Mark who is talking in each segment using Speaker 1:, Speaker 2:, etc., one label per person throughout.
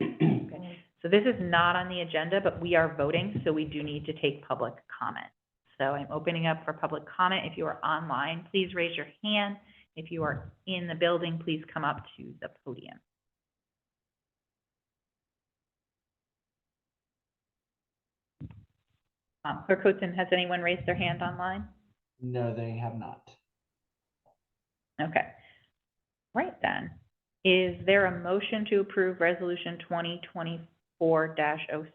Speaker 1: So this is not on the agenda, but we are voting, so we do need to take public comment. So I'm opening up for public comment. If you are online, please raise your hand. If you are in the building, please come up to the podium. Um, Clerk Hotzen, has anyone raised their hand online?
Speaker 2: No, they have not.
Speaker 1: Okay. Right then, is there a motion to approve Resolution twenty twenty-four 6
Speaker 3: So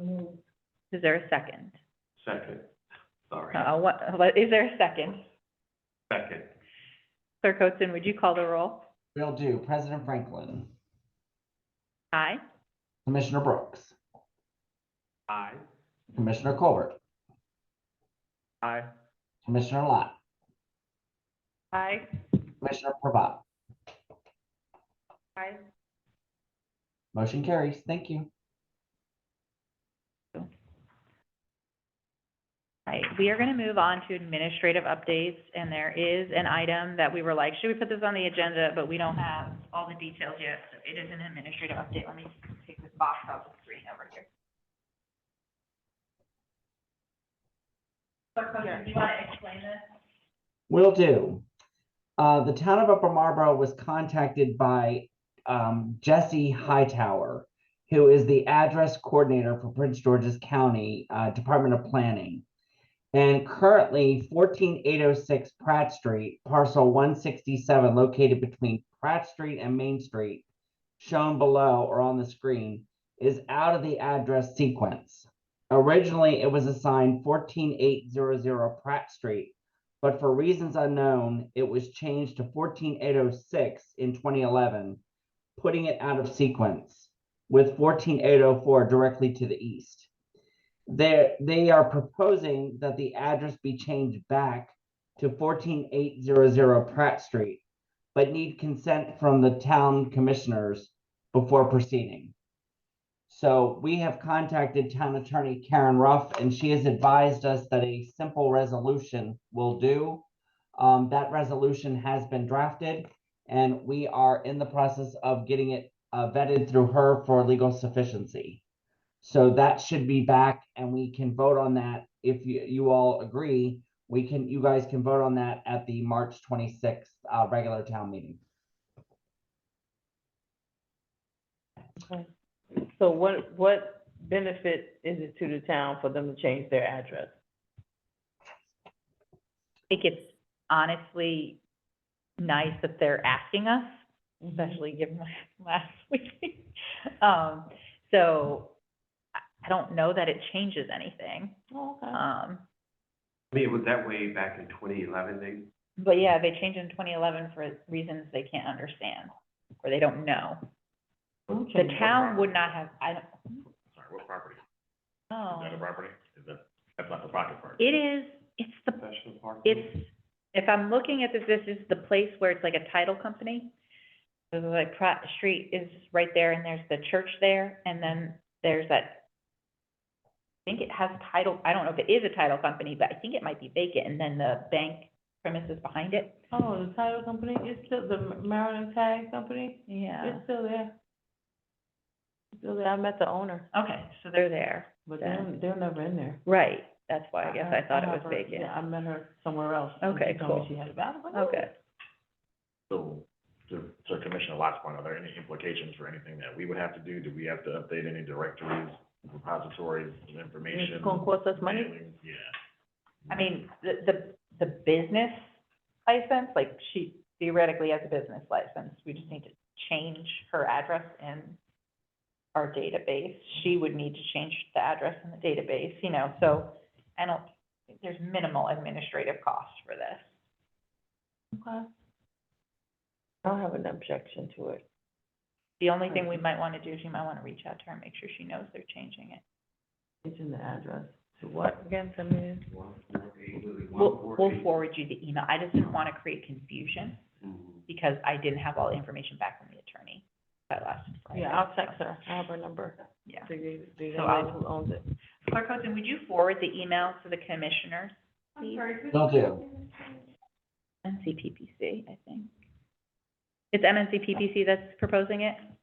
Speaker 3: moved.
Speaker 1: Is there a second?
Speaker 4: Second, sorry,
Speaker 1: Uh, what, what, is there a second?
Speaker 4: second,
Speaker 1: Clerk Hotzen, would you call the roll?
Speaker 2: Will do. President Franklin,
Speaker 1: Aye.
Speaker 2: Commissioner Brooks,
Speaker 4: aye.
Speaker 2: Commissioner Colbert,
Speaker 4: Aye.
Speaker 2: Commissioner Lott,
Speaker 1: Aye.
Speaker 2: Commissioner Pravat.
Speaker 1: Aye.
Speaker 2: Motion carries. Thank you.
Speaker 1: Right, we are gonna move on to administrative updates, and there is an item that we were like, should we put this on the agenda? But we don't have all the details yet, so it is an administrative update. Let me take this box off the screen over here. Clerk Hotzen, do you wanna explain this?
Speaker 2: Will do. Uh, the town of Upper Marlboro was contacted by, um, Jesse Hightower, who is the address coordinator for Prince George's County, uh, Department of Planning. And currently fourteen eight oh six Pratt Street, parcel one sixty-seven located between Pratt Street and Main Street, shown below or on the screen, is out of the address sequence. Originally, it was assigned fourteen eight zero zero Pratt Street, but for reasons unknown, it was changed to fourteen eight oh six in twenty eleven, putting it out of sequence with fourteen eight oh four directly to the east. They, they are proposing that the address be changed back to fourteen eight zero zero Pratt Street, but need consent from the town commissioners before proceeding. So we have contacted town attorney Karen Ruff, and she has advised us that a simple resolution will do. Um, that resolution has been drafted, and we are in the process of getting it uh, vetted through her for legal sufficiency. So that should be back, and we can vote on that. If you, you all agree, we can, you guys can vote on that at the March twenty-sixth, uh, regular town meeting.
Speaker 3: So what, what benefit is it to the town for them to change their address?
Speaker 1: think it's honestly nice that they're asking us,
Speaker 3: Mm-hmm.
Speaker 1: especially given la- last week. Um, so I, I don't know that it changes anything.
Speaker 3: Okay.
Speaker 1: Um,
Speaker 4: I mean, it was that way back in twenty eleven, they,
Speaker 1: but yeah, they changed in twenty eleven for reasons they can't understand or they don't know. The
Speaker 3: Okay.
Speaker 1: town would not have, I don't,
Speaker 5: Sorry, what property? Is that a
Speaker 1: oh,
Speaker 5: property? Is that, that's not the pocket park?
Speaker 1: it is, it's the,
Speaker 4: Professional Park.
Speaker 1: it's, if I'm looking at this, this is the place where it's like a title company. So it's like Pratt Street is right there and there's the church there and then there's that. I think it has title, I don't know if it is a title company, but I think it might be vacant and then the bank premises behind it.
Speaker 3: Oh, the title company, it's still, the Maryland Tag Company,
Speaker 1: Yeah.
Speaker 3: it's still there. It's Still there, I met the owner,
Speaker 1: Okay, so they're there.
Speaker 3: but
Speaker 1: Yeah.
Speaker 3: they're, they're never in there.
Speaker 1: Right, that's why I guess I thought it was
Speaker 3: met her-
Speaker 1: vacant.
Speaker 3: Yeah, I met her somewhere else. and
Speaker 1: Okay,
Speaker 3: she told me
Speaker 1: cool.
Speaker 3: She had a battle.
Speaker 1: Okay.
Speaker 5: So, to, to Commissioner Lot's point, are there any implications for anything that we would have to do? Do we have to update any directories, repositories, of information?
Speaker 3: It's gonna cost us money?
Speaker 5: mailings? Yeah.
Speaker 1: I mean, the, the, the business license, like she theoretically has a business license, we just need to change her address in our database. She would need to change the address in the database, you know, so I don't, there's minimal administrative costs for this.
Speaker 3: Okay. I don't have an objection to it.
Speaker 1: The only thing we might want to do is you might want to reach out to her and make sure she knows they're changing it.
Speaker 3: It's in the address.
Speaker 4: To what?
Speaker 3: Again, come in.
Speaker 4: One four eight, literally
Speaker 1: We'll,
Speaker 4: one four
Speaker 1: we'll
Speaker 4: eight.
Speaker 1: forward you the email. I just didn't want to create confusion
Speaker 4: Mhm.
Speaker 1: because I didn't have all the information back from the attorney by last Friday.
Speaker 3: Yeah, I'll text her, I have her number.
Speaker 1: Yeah.
Speaker 3: The, the- the
Speaker 1: So
Speaker 3: young
Speaker 1: I'll-
Speaker 3: lady who owns it.
Speaker 1: Clerk Hosen, would you forward the email to the commissioners, please?
Speaker 2: Will do.
Speaker 1: NCPPC, I think. It's MNCPPC that's proposing it?